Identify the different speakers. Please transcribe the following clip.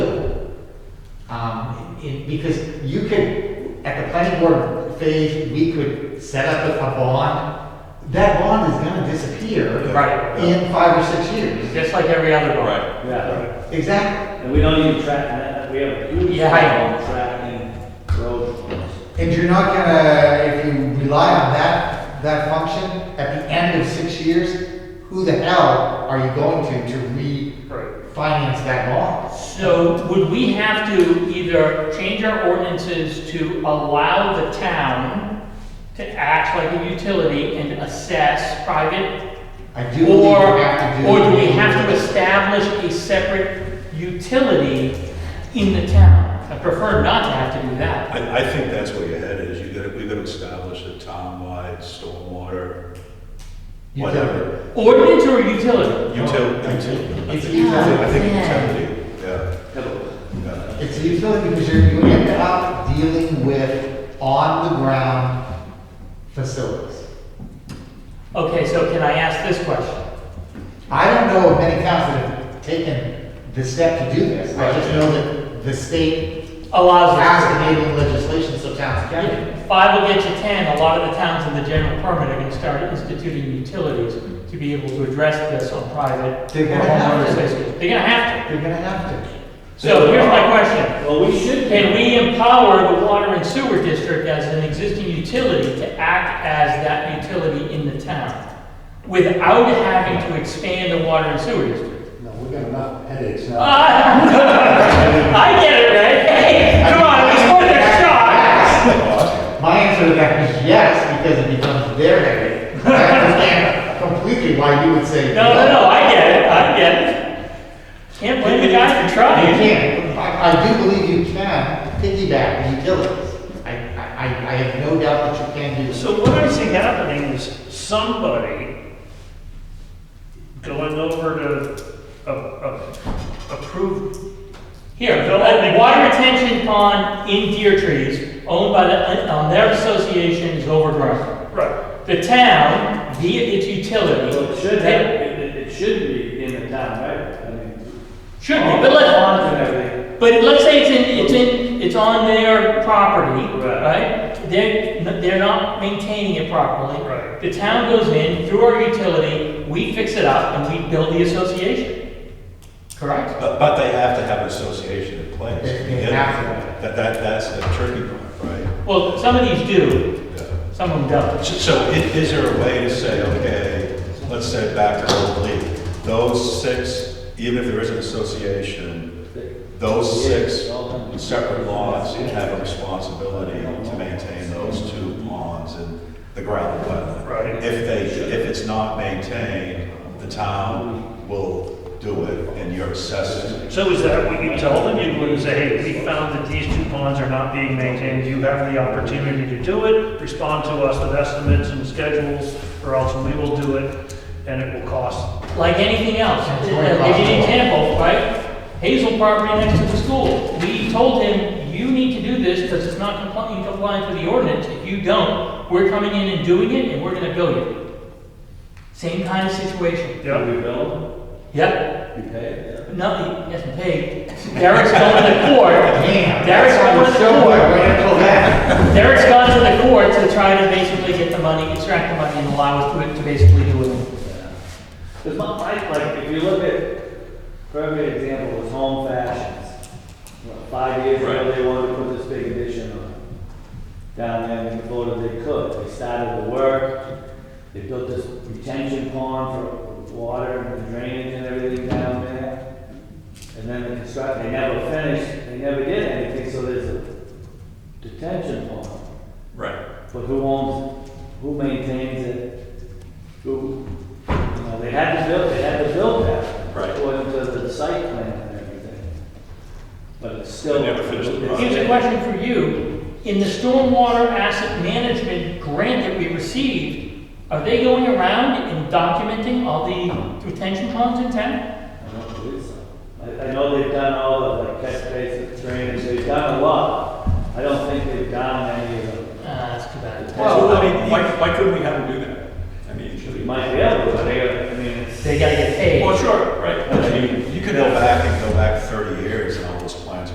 Speaker 1: in, Um, because you could, at the planning board phase, we could set up a a bond. That bond is gonna disappear.
Speaker 2: Right.
Speaker 1: In five or six
Speaker 2: It's
Speaker 1: years.
Speaker 2: just like every other bond.
Speaker 3: Yeah,
Speaker 1: Exactly.
Speaker 3: and we don't even track that, we have a huge
Speaker 2: Yeah, I know.
Speaker 3: problem tracking road funds.
Speaker 1: And you're not gonna, if you rely on that, that function, at the end of six years, who the hell are you going to, to refinance that bond?
Speaker 4: So would we have to either change our ordinances to allow the town to act like a utility and assess private?
Speaker 1: I do believe you
Speaker 4: Or,
Speaker 1: have to do.
Speaker 4: or do we have to establish a separate utility in the town? I prefer not to have to do that.
Speaker 5: I, I think that's where your head is. You gotta, we gotta establish a town-wide stormwater, whatever.
Speaker 4: Ordinance or utility?
Speaker 5: Utility, utility.
Speaker 1: It's utility.
Speaker 5: I think
Speaker 6: Yeah.
Speaker 5: utility, yeah, yeah.
Speaker 1: It's a utility because you're, you end up dealing with on-the-ground facilities.
Speaker 4: Okay, so can I ask this question?
Speaker 1: I don't know of many towns that have taken the step to do this. I just know that the state
Speaker 4: Allows. us to-
Speaker 1: passed enabling legislation so towns can. do it.
Speaker 4: Five will get you 10, a lot of the towns in the general permit are going to start instituting utilities to be able to address this on private
Speaker 1: They're gonna
Speaker 4: homeowners
Speaker 1: have to.
Speaker 4: associations. They're going to have to.
Speaker 1: They're gonna have to.
Speaker 4: So here's my question.
Speaker 3: Well, we should.
Speaker 4: Can we empower the water and sewer district as an existing utility to act as that utility in the town without having to expand the water and sewer district?
Speaker 7: No, we got enough headaches now.
Speaker 4: Ah, I get it, right? Hey, come on, it's worth a shot.
Speaker 1: My answer to that is yes, because it becomes their headache. I understand completely why you would say.
Speaker 4: No, no, no, I get it, I get it. Can't blame the guy for
Speaker 1: You
Speaker 4: trying.
Speaker 1: can. I, I do believe you can piggyback the utilities. I, I, I have no doubt that you can do so.
Speaker 8: So what I see happening is somebody going over to a, a approved,
Speaker 4: Here, a water retention pond in deer trees owned by the, on their association is overgrown.
Speaker 8: right,
Speaker 4: The town, via its utility.
Speaker 3: Well, it should have, it, it- it should be in the town, right? I mean,
Speaker 4: Should be,
Speaker 3: all
Speaker 4: but
Speaker 3: the
Speaker 4: let's,
Speaker 3: Funds and everything.
Speaker 4: but let's say it's in, it's in, it's on their property,
Speaker 3: Right.
Speaker 4: right? They're, they're not maintaining it properly.
Speaker 8: Right.
Speaker 4: The town goes in through our utility, we fix it up and we build the association. Correct?
Speaker 5: But, but they have to have an association in place.
Speaker 1: They- they have to.
Speaker 5: That, that, that's the tricky part, right?
Speaker 4: Well, some of these do,
Speaker 5: Yeah.
Speaker 4: some of them don't.
Speaker 5: So- So i- is there a way to say, okay, let's say back to Old Lee, those six, even if there is an association, those six separate lots have a responsibility to maintain those two ponds and the gravel wetland.
Speaker 8: Right.
Speaker 5: If they, if it's not maintained, the town will do it and you're assessed.
Speaker 8: so is that what you tell them? You would say, hey, we found that these two ponds are not being maintained, you have the opportunity to do it, respond to us with estimates and schedules, or else we will do it, and it will cost.
Speaker 4: like anything else.
Speaker 1: Yeah, it's
Speaker 4: Give you
Speaker 1: very
Speaker 4: an
Speaker 1: possible.
Speaker 4: example, right? Hazel property next to the school. We told him, you need to do this because it's not compli- in compliance with the ordinance. If you don't, we're coming in and doing it and we're gonna bill you. Same kind of situation.
Speaker 8: Yeah.
Speaker 3: We build,
Speaker 4: Yep,
Speaker 3: we pay,
Speaker 4: no, he hasn't paid. Derek's going to court.
Speaker 1: Damn,
Speaker 4: Derek's
Speaker 1: that's on
Speaker 4: going
Speaker 1: the
Speaker 4: to
Speaker 1: show, I
Speaker 4: court.
Speaker 1: waited till then.
Speaker 4: Derek's gone to the court to try to basically get the money, extract the money and allow us to, to basically do it.
Speaker 3: Because my, my, like, if you look at, perfect example was Home Fashions. What, Five years ago, they wanted to put this big addition on. Down there in Florida, they could, they started the work, they built this retention pond for water and drainage and everything down there. And then the construction, they never finished, they never did anything, so there's a detention pond.
Speaker 5: Right.
Speaker 3: But who owns, it? who maintains it? Who, you know, they had to build, they had to build that.
Speaker 5: Right.
Speaker 3: According to the site plan and everything. But it's still.
Speaker 5: They never finished the
Speaker 3: it's-
Speaker 5: project.
Speaker 4: Here's a question for you. In the stormwater asset management grant that we received, are they going around and documenting all the retention ponds in town? Uh,
Speaker 3: I don't believe so. I, I know they've done all of the catch basin drainage, they've done a lot. I don't think they've done any of
Speaker 4: Ah,
Speaker 3: them.
Speaker 4: that's too bad.
Speaker 3: Well, I
Speaker 2: mean, why, why couldn't we have them do that? I mean, should
Speaker 3: You might be able to, but they, I mean, it's.
Speaker 4: They gotta get paid.
Speaker 2: Well, sure, right.
Speaker 5: You could go back and